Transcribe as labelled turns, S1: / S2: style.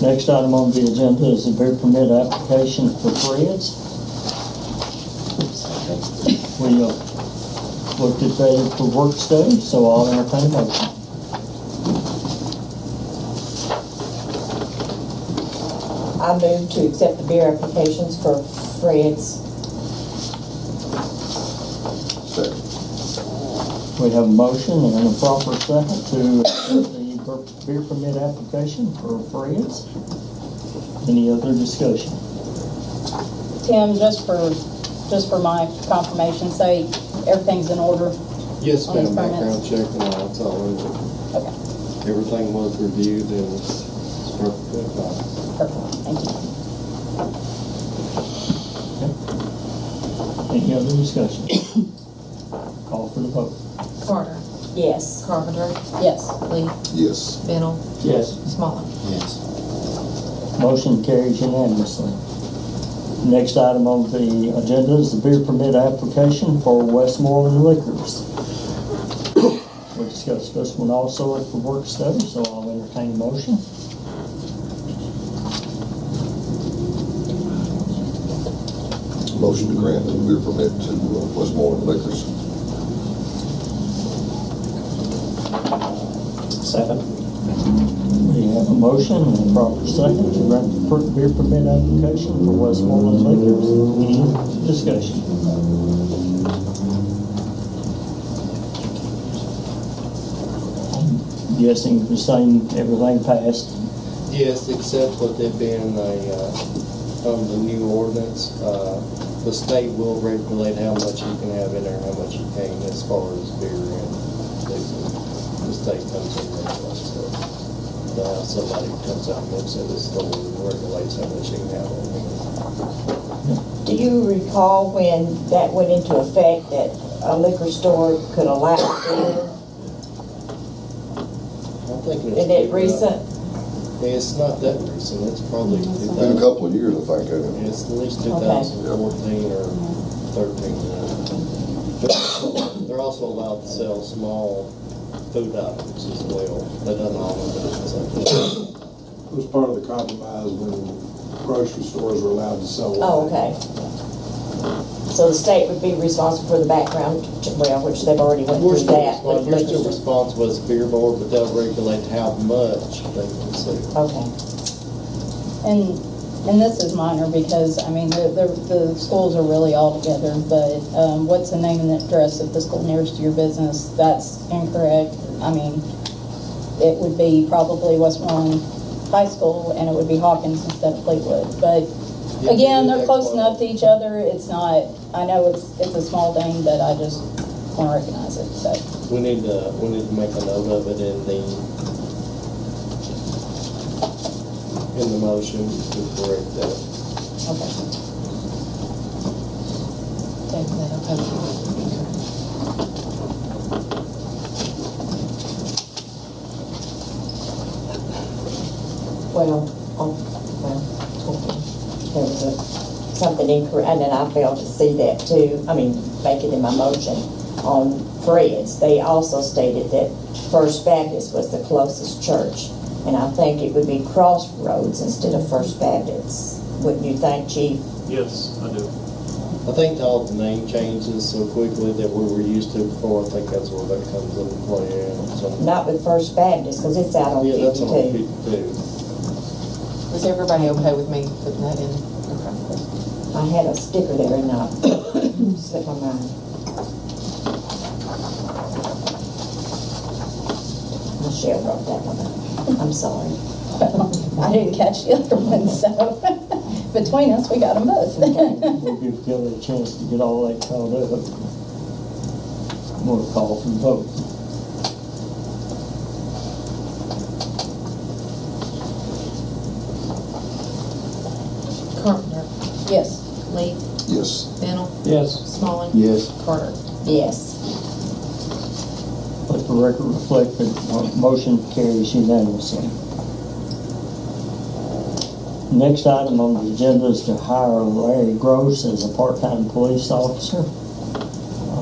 S1: Next item on the agenda is a beer permit application for Fred's. We uh, looked at that for work study, so I'll entertain a motion.
S2: I move to accept the beer applications for Fred's.
S1: We have a motion and a proper second to accept the per- beer permit application for Fred's. Any other discussion?
S3: Tim, just for, just for my confirmation sake, everything's in order.
S4: Yes,
S3: on these
S4: ma'am, background
S3: permits?
S4: check and all, that's all in it.
S3: Okay,
S4: Everything was reviewed and was perfectly fine.
S3: perfect, thank you.
S1: Any other discussion? Call for the vote.
S5: Carter,
S2: Yes.
S5: Carpenter,
S3: Yes,
S5: Lee,
S6: Yes.
S5: Bennell,
S1: Yes.
S5: Smaller.
S6: Yes.
S1: Motion carries unanimously. Next item on the agenda is the beer permit application for Westmoreland Liquors. We discussed this one also at the work study, so I'll entertain a motion.
S6: Motion to grant the beer permit to uh, Westmoreland Liquors.
S7: Second.
S1: We have a motion and a proper second to grant the per- beer permit application for Westmoreland Liquors. Any discussion? I'm Guessing the same, everything passed.
S4: Yes, except with it being a, uh, on the new ordinance, uh, the state will regulate how much you can have in there, how much you can as far as beer and liquor. The state comes in and regulates it. Now, somebody comes out and looks at this store and regulates how much you can have in there.
S2: Do you recall when that went into effect, that a liquor store could allow beer?
S4: I'm thinking
S2: Is
S4: it's.
S2: it recent?
S4: It's not that recent, it's probably two thousand.
S6: Been a couple of years, I think, hasn't it?
S4: It's at least
S2: Okay.
S4: 2014 or 13. uh, They're also allowed to sell small food items as well. They don't all of them, so.
S8: It was part of the compromise when grocery stores were allowed to sell wine.
S2: Oh, okay. So the state would be responsible for the background, ch- well, which they've already went
S4: We're
S2: through
S4: still
S2: that.
S4: respons-
S2: with
S4: We're still
S2: liquor store.
S4: responsible as a beer board, but they'll regulate how much they can sell.
S2: Okay,
S3: and, and this is minor because, I mean, the, the, the schools are really all together, but, um, what's the name and address of the school nearest to your business? That's incorrect. I mean, it would be probably Westmoreland High School and it would be Hawkins instead of Fleetwood, but
S4: Yeah,
S3: Again,
S4: they
S3: they're
S4: do
S3: close
S4: that
S3: enough
S4: quite
S3: to each other, it's not, I know it's, it's a small thing, but I just wanna recognize it, so.
S4: a lot. We need to, we need to make a note of it in the, in the motion to correct that.
S5: Take that, okay.
S2: well, oh, well, okay. there was a- something incorrect, and then I failed to see that too. I mean, make it in my motion on Fred's. They also stated that First Baptist was the closest church. And I think it would be Crossroads instead of First Baptist. Wouldn't you think, Chief?
S7: Yes, I do.
S4: I think all the name changes so quickly that we were used to before, I think that's where that comes into play. and so-
S2: Not with First Baptist, because it's out on
S4: Yeah, that's on
S2: fifty-two.
S4: fifty-two.
S5: Was everybody okay with me putting that in? Okay.
S2: I had a sticker there and I slipped my mind. Michelle wrote that one up. I'm sorry.
S3: I didn't catch the other one, so, between us, we got them both.
S1: We'll give Kelly a chance to get all that caught up. More call for the vote.
S5: Carpenter,
S3: Yes,
S5: Lee,
S6: Yes.
S5: Bennell,
S7: Yes.
S5: Smaller,
S6: Yes.
S5: Carter.
S2: Yes.
S1: Let the record reflect that the motion carries unanimously. Next item on the agenda is to hire Larry Gross as a part-time police officer.